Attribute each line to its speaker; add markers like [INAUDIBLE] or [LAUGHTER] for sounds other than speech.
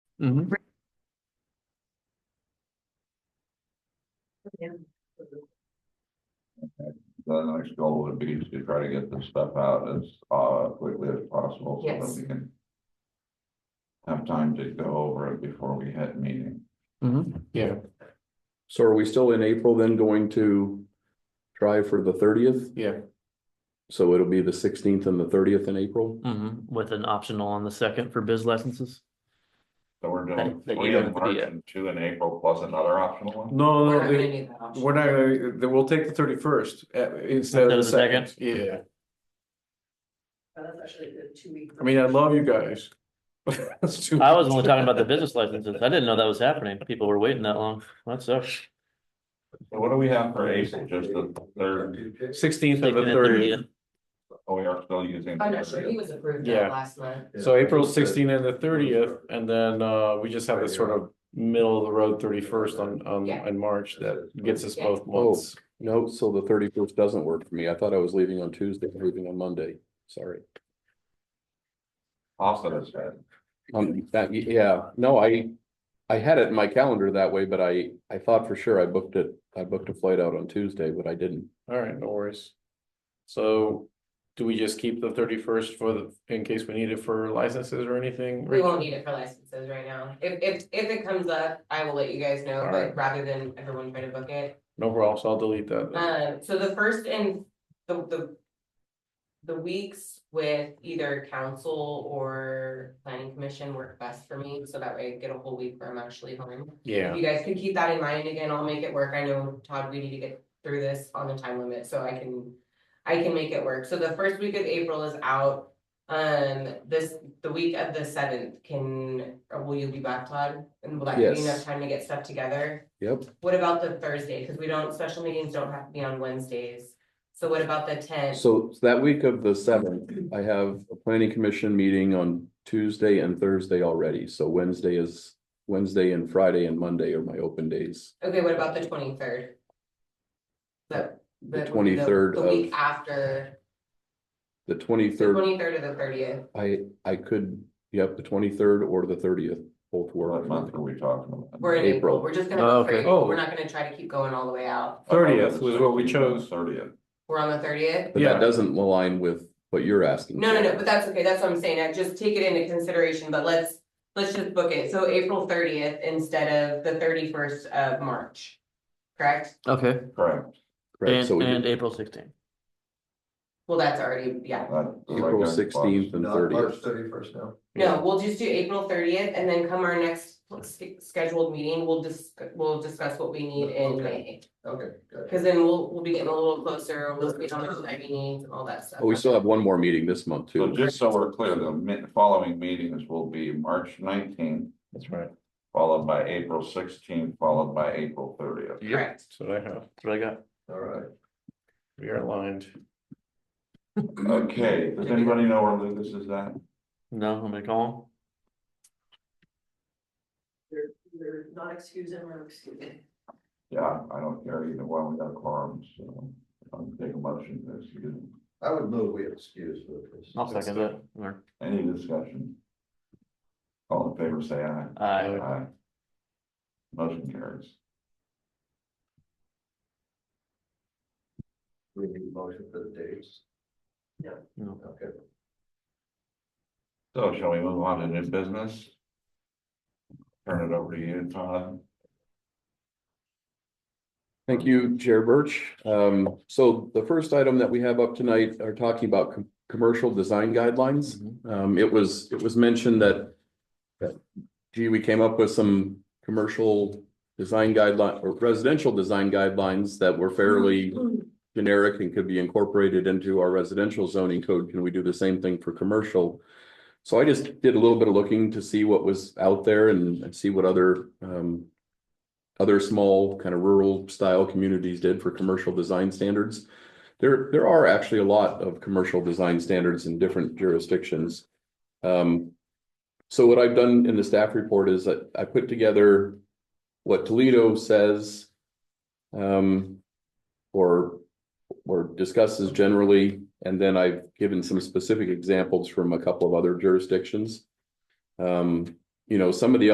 Speaker 1: Mhm.
Speaker 2: The next goal would be to try to get this stuff out as uh quickly as possible so
Speaker 3: Yes.
Speaker 2: that we can. Have time to go over it before we hit meeting.
Speaker 1: Mhm. Yeah,
Speaker 4: So are we still in April then going to try for the thirtieth?
Speaker 1: yeah.
Speaker 4: So it'll be the sixteenth and the thirtieth in April?
Speaker 5: Mhm, with an optional on the second for biz licenses.
Speaker 2: So we're doing
Speaker 5: That- that you
Speaker 2: three
Speaker 5: don't
Speaker 2: in
Speaker 5: have to
Speaker 2: March
Speaker 5: do
Speaker 2: and two in April plus another optional one.
Speaker 1: No,
Speaker 3: We're
Speaker 1: no,
Speaker 3: not
Speaker 1: they-
Speaker 3: gonna need that option.
Speaker 1: we're not, gonna- they- we'll take the thirty first instead of the second. Yeah,
Speaker 3: But Oh, That's actually a two week.
Speaker 1: I mean, I love you guys. [LAUGHS] That's too
Speaker 5: I was
Speaker 1: much.
Speaker 5: only talking about the business licenses. I didn't know that was happening. People were waiting that long. That sucks.
Speaker 2: So what do we have for April? Just the third,
Speaker 1: Sixteenth and the
Speaker 5: Second and
Speaker 1: thirtieth.
Speaker 5: 30th.
Speaker 2: oh, we are still using.
Speaker 3: I'm not sure, he was approved
Speaker 1: Yeah.
Speaker 3: that last month.
Speaker 1: So April sixteenth and the thirtieth, and then uh, we just have this sort of middle of the road thirty first on, on,
Speaker 3: Yeah.
Speaker 1: in March that gets us
Speaker 3: Yeah.
Speaker 1: both months.
Speaker 4: Oh, No, so the thirty-first doesn't work for me. I thought I was leaving on Tuesday, and leaving on Monday. Sorry.
Speaker 2: Austin has said.
Speaker 4: Um, that, yeah, no, I, I had it in my calendar that way, but I, I thought for sure I booked it, I booked a flight out on Tuesday, but I didn't.
Speaker 1: All right, no worries. So do we just keep the thirty first for the, in case we need it for licenses or anything?
Speaker 3: We
Speaker 1: Rachel?
Speaker 3: won't need it for licenses right now. If, if, if it comes up, I will let you guys know,
Speaker 1: All right.
Speaker 3: but rather than everyone trying to book it.
Speaker 1: No problem, so I'll delete that. then.
Speaker 3: Um, so the first and the, the. The weeks with either council or planning commission work best for me, so that way I get a whole week where I'm actually home.
Speaker 1: Yeah,
Speaker 3: You guys can keep that in mind, again, I'll make it work, I know, Todd, we need to get through this on the time limit, so I can. I can make it work, so the first week of April is out, um, this, the week of the seventh can, or will you be back, Todd? And will that give you enough
Speaker 4: Yes.
Speaker 3: time to get stuff together?
Speaker 4: Yep,
Speaker 3: What about the Thursday? Cause we don't, special meetings don't have to be on Wednesdays. So what about the tenth?
Speaker 4: so that week of the seventh, I have a planning commission meeting on Tuesday and Thursday already, so Wednesday is. Wednesday and Friday and Monday are my open days.
Speaker 3: Okay, what about the twenty-third? The,
Speaker 4: The
Speaker 3: the.
Speaker 4: 23rd
Speaker 3: The week
Speaker 4: of-
Speaker 3: after,
Speaker 4: The
Speaker 3: the
Speaker 4: twenty-third,
Speaker 3: twenty-third or the thirtieth.
Speaker 4: I, I could, yep, the twenty-third or the thirtieth, both work.
Speaker 2: What month are we talking about?
Speaker 3: We're in April.
Speaker 4: April.
Speaker 3: We're just gonna.
Speaker 5: Oh,
Speaker 3: look for
Speaker 5: okay.
Speaker 3: April.
Speaker 1: Oh.
Speaker 3: We're not gonna try to keep going all the way out.
Speaker 2: Oh,
Speaker 1: thirtieth was what we chose.
Speaker 2: Thirtieth.
Speaker 3: We're on the thirtieth?
Speaker 4: But
Speaker 1: Yeah.
Speaker 4: that doesn't align with what you're asking.
Speaker 3: No, no, no, but that's okay. That's what I'm saying. I just take it into consideration, but let's, let's just book it. So April thirtieth instead of the thirty-first of March. Correct?
Speaker 5: Okay,
Speaker 2: Correct.
Speaker 4: Right,
Speaker 5: and,
Speaker 4: so we
Speaker 5: and
Speaker 4: did
Speaker 5: April sixteenth.
Speaker 3: Well, that's already, yeah.
Speaker 2: That-
Speaker 4: April sixteenth and thirtieth.
Speaker 1: thirty-first now.
Speaker 3: No, we'll just do April thirtieth and then come our next sch- scheduled meeting, we'll dis- we'll discuss what we need in May.
Speaker 1: Okay, good.
Speaker 3: Cause then we'll, we'll be getting a little closer, we'll see how much time we need and all that stuff.
Speaker 4: Oh, we still have one more meeting this month
Speaker 2: So
Speaker 4: too.
Speaker 2: just so we're clear, the mi- following meetings will be March nineteenth,
Speaker 1: That's right.
Speaker 2: followed by April sixteenth, followed by April thirtieth.
Speaker 3: Correct.
Speaker 1: That's what I have.
Speaker 5: That's what I got.
Speaker 1: All right. We are aligned.
Speaker 2: Okay, does anybody know where Lucas is at?
Speaker 5: No, I'm gonna call
Speaker 6: They're, they're not excusing or excusing.
Speaker 2: Yeah, I don't care either one, we got quorums, so I'll take a motion to excuse.
Speaker 7: I would move we excuse Lucas.
Speaker 5: him. I'll second that. Or,
Speaker 2: Any discussion? All in favor, say aye.
Speaker 5: I,
Speaker 2: Aye. Motion carries.
Speaker 7: We need a motion for the dates.
Speaker 5: no.
Speaker 7: Okay.
Speaker 2: So shall we move on to new business? Turn it over to you, Todd.
Speaker 4: Thank you, Chair Birch. Um, so the first item that we have up tonight are talking about com- commercial design guidelines. Um, it was, it was mentioned that that, gee, we came up with some commercial design guideline or residential design guidelines that were fairly
Speaker 3: Mm.
Speaker 4: generic and could be incorporated into our residential zoning code. Can we do the same thing for commercial? So I just did a little bit of looking to see what was out there and and see what other um other small kind of rural style communities did for commercial design standards. There, there are actually a lot of commercial design standards in different jurisdictions. Um, so what I've done in the staff report is that I put together what Toledo says um, or, or discusses generally, and then I've given some specific examples from a couple of other jurisdictions. Um, you know, some of the